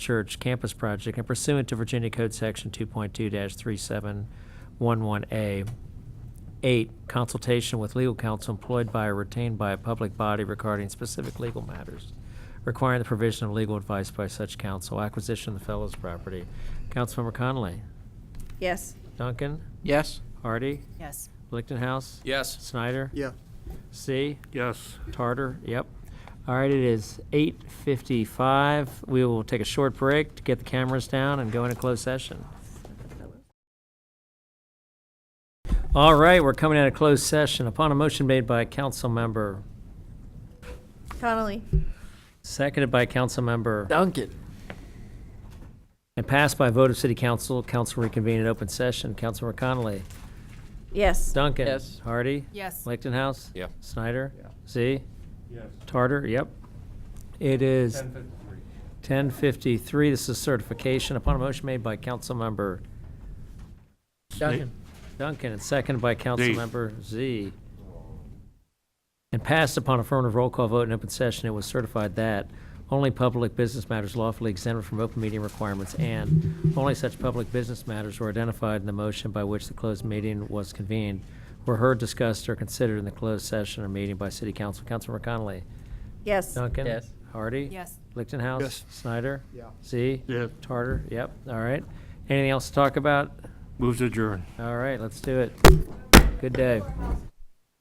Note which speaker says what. Speaker 1: Church Campus Project and pursuant to Virginia Code Section 2.2-3711A. Eight, consultation with legal counsel employed by or retained by a public body regarding specific legal matters, requiring the provision of legal advice by such counsel, acquisition of the fellow's property. Councilmember Connolly?
Speaker 2: Yes.
Speaker 1: Duncan?
Speaker 3: Yes.
Speaker 1: Hardy?
Speaker 2: Yes.
Speaker 1: Lichtenhouse?
Speaker 3: Yes.
Speaker 1: Snyder?
Speaker 4: Yeah.
Speaker 1: C?
Speaker 5: Yes.
Speaker 1: Tartar, yep. All right, it is 8:55. We will take a short break to get the cameras down and go into closed session. All right, we're coming out of closed session. Upon a motion made by council member,
Speaker 2: Connolly.
Speaker 1: seconded by council member,
Speaker 3: Duncan.
Speaker 1: and passed by a vote of city council, council reconvened in open session. Councilmember Connolly.
Speaker 2: Yes.
Speaker 1: Duncan.
Speaker 3: Yes.
Speaker 1: Hardy.
Speaker 2: Yes.
Speaker 1: Lichtenhouse.
Speaker 3: Yeah.
Speaker 1: Snyder.
Speaker 5: Yeah.
Speaker 1: Z.
Speaker 5: Yes.
Speaker 1: Tartar, yep. It is 1053, this is certification upon a motion made by Councilmember
Speaker 3: Duncan.
Speaker 1: Duncan and seconded by Councilmember Z. And passed upon affirmative roll call vote in open session, it was certified that only public business matters lawfully exempted from open meeting requirements and only such public business matters were identified in the motion by which the closed meeting was convened were heard, discussed, or considered in the closed session or meeting by city council. Councilmember Connolly?
Speaker 2: Yes.
Speaker 1: Duncan?
Speaker 3: Yes.
Speaker 1: Hardy?
Speaker 2: Yes.
Speaker 1: Lichtenhouse?
Speaker 5: Yes.
Speaker 1: Snyder?
Speaker 4: Yeah.
Speaker 1: Z?
Speaker 5: Yes.
Speaker 1: Tarter? Yep, all right. Anything else to talk about?
Speaker 5: Move to adjourn.
Speaker 1: All right, let's do it. Good day.